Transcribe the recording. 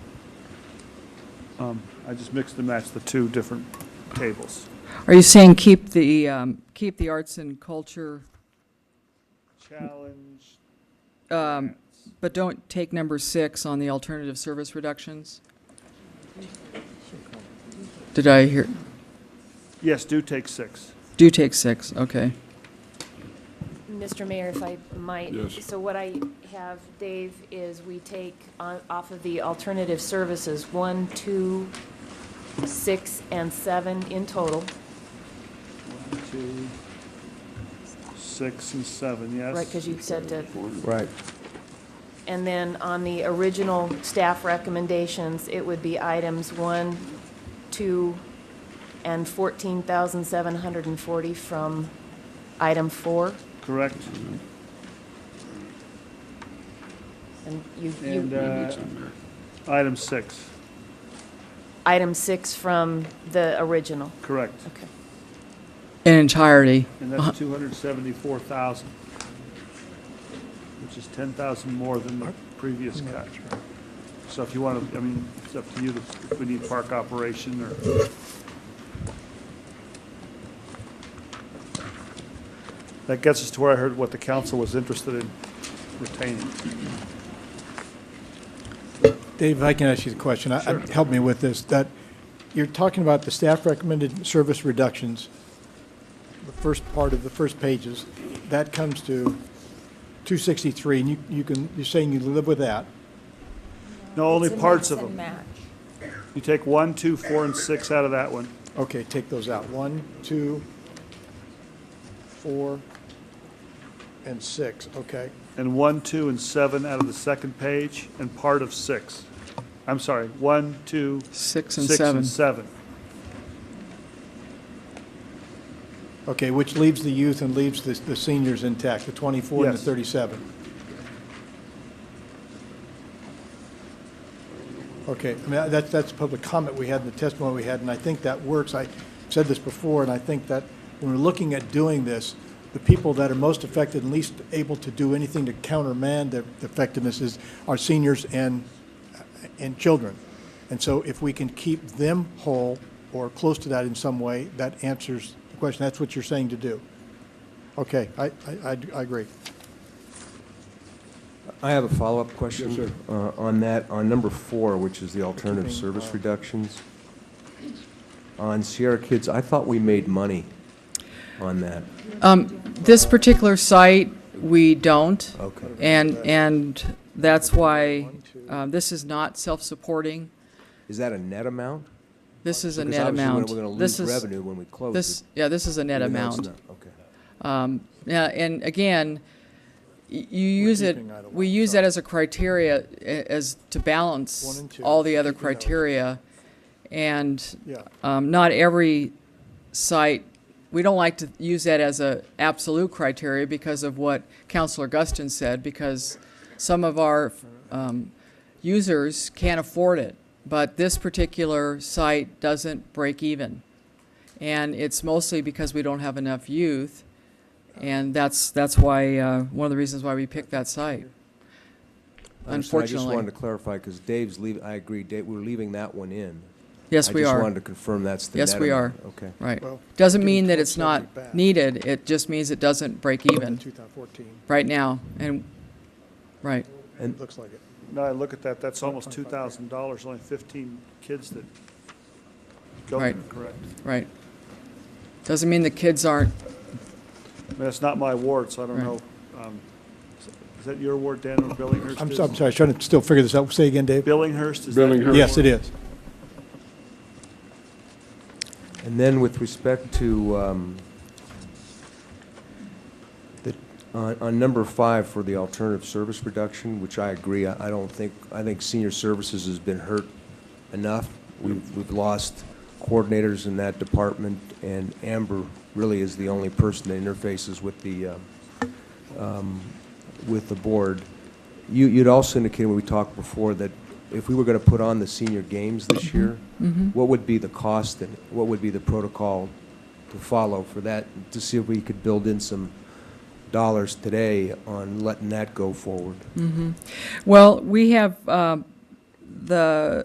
Um, I just mixed and matched the two different tables. Are you saying keep the, um, keep the arts and culture, Challenge. um, but don't take number six on the alternative service reductions? Did I hear, Yes, do take six. do take six, okay. Mr. Mayor, if I might. Yes. So what I have, Dave, is we take on- off of the alternative services, one, two, six, and seven in total. One, two, six and seven, yes. Right, because you said to, Right. and then on the original staff recommendations, it would be items one, two, and 14,740 from item four. Correct. And you, And, you, uh, item six, item six from the original. correct. Okay. In entirety, And that's two hundred seventy-four thousand, which is ten thousand more than the previous cut. So if you want to, I mean, it's up to you if we need park operation or. That gets us to where I heard what the council was interested in retaining. Dave, if I can ask you the question. I- I- Help me with this, that, you're talking about the staff recommended service reductions, the first part of the first pages, that comes to 263, and you, you can, you're saying you live with that. No, only It's a parts mix of and them. match. You take one, two, four, and six out of that one. Okay, take those out. One, two, four, and six, okay. and one, two, and seven out of the second page, and part of six. I'm sorry, one, two, six and six, and seven. seven. Okay, which leaves the youth and leaves the, the seniors intact, the 24 and the Yes. 37. Okay, I mean, that's, that's public comment we had in the testimony we had, and I think that works. I said this before, and I think that when we're looking at doing this, the people that are most affected and least able to do anything to countermand the the effectiveness is our seniors and, and children. And so if we can keep them whole or close to that in some way, that answers the question. That's what you're saying to do. Okay, I, I, I I agree. I have a follow-up question. uh, On that, on number four, which is the alternative service reductions. On Sierra Kids, I thought we made money on that. This particular site, we don't. Okay. And, and that's why, um, this is not self-supporting. Is that a net amount? This is a Because net obviously amount. we're- We're going to This lose is- revenue when we close it. This, yeah, this is a net even though it's amount. not- Okay. Yeah, and again, y- you use it, keeping item we one, use that as a criteria, a- as to balance and two, all the other keeping those. criteria. And Yeah. um, not every site, we don't like to use that as a absolute criteria because of what Counselor Guston said, because some of our um, users can't afford it. But this particular site doesn't break even. And it's mostly because we don't have enough youth. And that's, that's why, uh, one of the reasons why we picked that site. I understand. I just wanted Unfortunately. to clarify, because Dave's leaving, I agree, Dave, we're leaving that one in. Yes, we I just are. wanted to confirm that's the net Yes, amount. we are. Okay. Right. Well, Doesn't getting mean that it's not 1270 back. needed. It just means it doesn't break even 2014, right now. And, right. looks like it. Now I look at that, that's almost two thousand dollars, only fifteen kids that go there, Right. correct? Right. Doesn't mean the kids aren't, I mean, That's not my ward, so I don't know. Right. um, Is that your ward, Dan, or Billinghurst? I'm, is? so- I'm sorry, trying to still figure this out. Say again, Dave? Billinghurst, is that your Yes, ward? it is. And then with respect to, um, the, on, on number five for the alternative service reduction, which I agree, I I don't think, I think senior services has been hurt enough. We've, we've lost coordinators in that department, and Amber really is the only person that interfaces with the, uh, um, with the board. You, you'd also indicated when we talked before that if we were going to put on the senior games this year, what would be the cost and what would be the protocol to follow for that, to see if we could build in some dollars today on letting that go forward? well, we have, um, uh, the